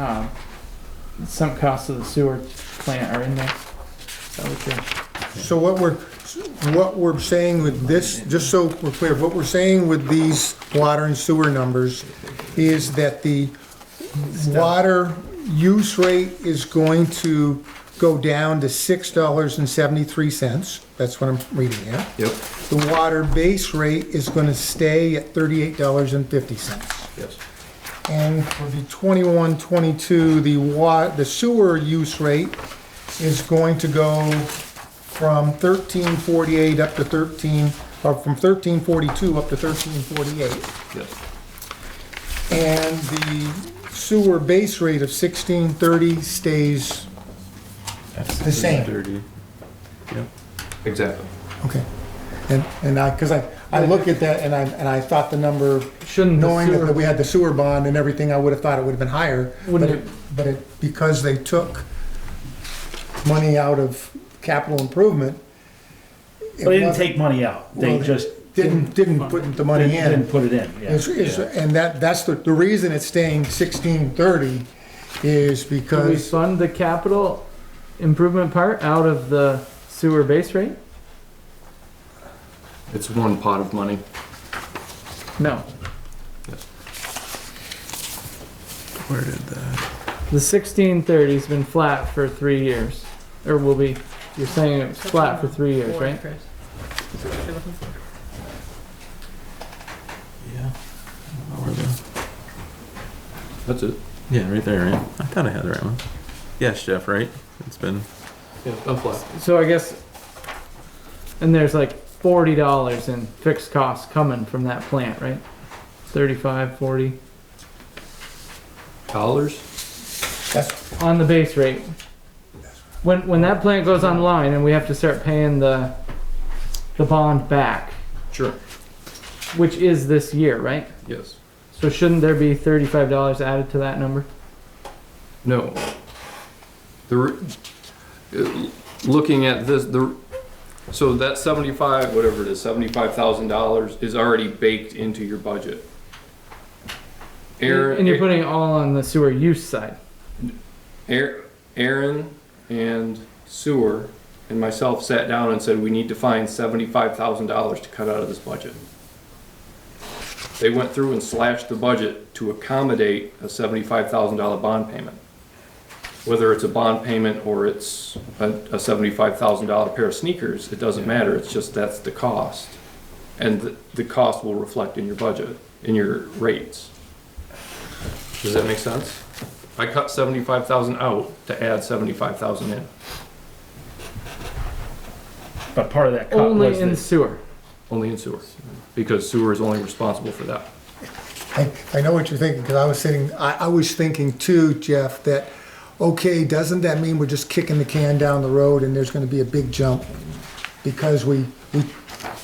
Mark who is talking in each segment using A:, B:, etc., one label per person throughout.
A: um, some costs of the sewer plant are in there. So we can-
B: So what we're, what we're saying with this, just so we're clear, what we're saying with these water and sewer numbers is that the water use rate is going to go down to six dollars and seventy-three cents. That's what I'm reading here.
C: Yep,
B: The water base rate is gonna stay at thirty-eight dollars and fifty cents.
C: yes.
B: And for the 21, 22, the wa, the sewer use rate is going to go from thirteen forty-eight up to thirteen, or from thirteen forty-two up to thirteen forty-eight.
C: Yes.
B: And the sewer base rate of sixteen thirty stays the same.
C: Thirty. Yep. Exactly.
B: Okay. And, and I, because I, I look at that and I, and I thought the number,
A: Shouldn't the
B: knowing that
A: sewer,
B: we had the sewer bond and everything, I would have thought it would have been higher. But
A: Wouldn't
B: it, but it, because they took money out of capital improvement. it
D: But they didn't
B: wasn't-
D: take money out. They
B: Well,
D: just
B: Didn't, didn't put the money
D: didn't,
B: in.
D: didn't put it in. Yeah.
B: It's- it's- And that, that's the, the reason it's staying sixteen thirty is
A: do we
B: because,
A: fund the capital improvement part out of the sewer base rate?
C: It's one pot of money.
A: No.
C: Where did that?
A: The sixteen thirty's been flat for three years, or will be, you're saying it's flat for three years,
E: Four,
A: right?
E: Chris. That's what you're looking for.
F: Yeah. I don't know where the-
C: That's it.
F: Yeah, right there, right? I thought I had the right one. Yes, Jeff, right? It's been.
C: Yeah, I'm flat.
A: So I guess, and there's like forty dollars in fixed costs coming from that plant, right? Thirty-five, forty,
C: Dollars?
B: that's,
A: on the base rate. When, when that plant goes online and we have to start paying the, the bond back,
C: Sure.
A: which is this year, right?
C: Yes.
A: So shouldn't there be thirty-five dollars added to that number?
C: No. The, re- uh, looking at this, the, so that seventy-five, whatever it is, seventy-five thousand dollars is already baked into your budget. Aaron.
A: And you're putting it all on the sewer use side.
C: Aar- Aaron and Sewer and myself sat down and said, we need to find seventy-five thousand dollars to cut out of this budget. They went through and slashed the budget to accommodate a seventy-five thousand dollar bond payment. Whether it's a bond payment or it's a, a seventy-five thousand dollar pair of sneakers, it doesn't matter, it's just that's the cost. And the, the cost will reflect in your budget, in your rates. Does that make sense? I cut seventy-five thousand out to add seventy-five thousand in,
D: But part of that cut
A: Only
D: was
A: in
D: that-
A: sewer.
C: only in sewer, because sewer is only responsible for that.
B: I, I know what you're thinking, because I was sitting, I, I was thinking too, Jeff, that, okay, doesn't that mean we're just kicking the can down the road and there's gonna be a big jump? Because we, we,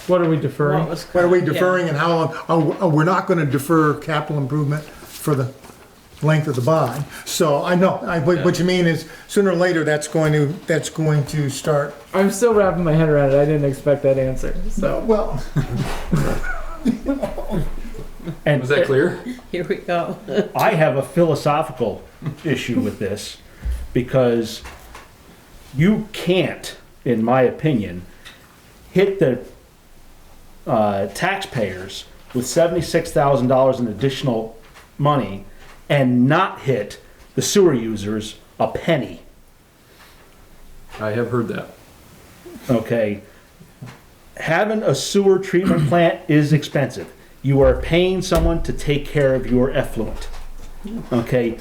A: What are we deferring?
B: what are we deferring and how long? Oh, oh, we're not gonna defer capital improvement for the length of the bond. So I know, I, what what you mean is sooner or later, that's going to, that's going to start,
A: I'm still wrapping my head around it. I didn't expect that answer. So
B: well,
D: And
C: Was that clear?
E: Here we go.
D: I have a philosophical issue with this because you can't, in my opinion, hit the uh, taxpayers with $76,000 in additional money and not hit the sewer users a penny.
C: I have heard that.
D: okay? Having a sewer treatment plant is expensive. You are paying someone to take care of your effluent, okay?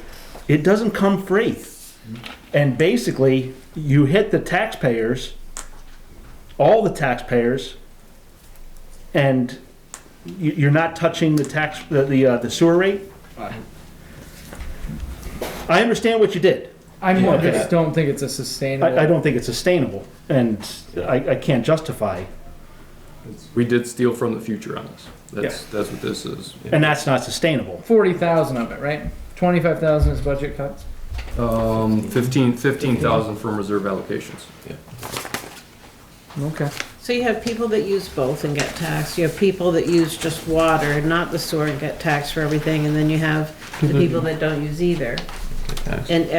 D: It doesn't come free. And basically, you hit the taxpayers, all the taxpayers, and you, you're not touching the tax, the, the, uh, the sewer rate? I understand what you did.
A: I
D: Yeah.
A: just don't think it's a sustainable.
D: I, I don't think it's sustainable, and I, I can't justify
C: We did steal from the future on this. That's, that's what this is.
D: And that's not sustainable.
A: Forty thousand of it, right? Twenty-five thousand is budget cuts.
C: Um, fifteen, fifteen thousand from reserve allocations.
A: Okay.
E: So you have people that use both and get taxed. You have people that use just water, not the sewer, and get taxed for everything. And then you have the people that don't use either.
F: Tax.
E: and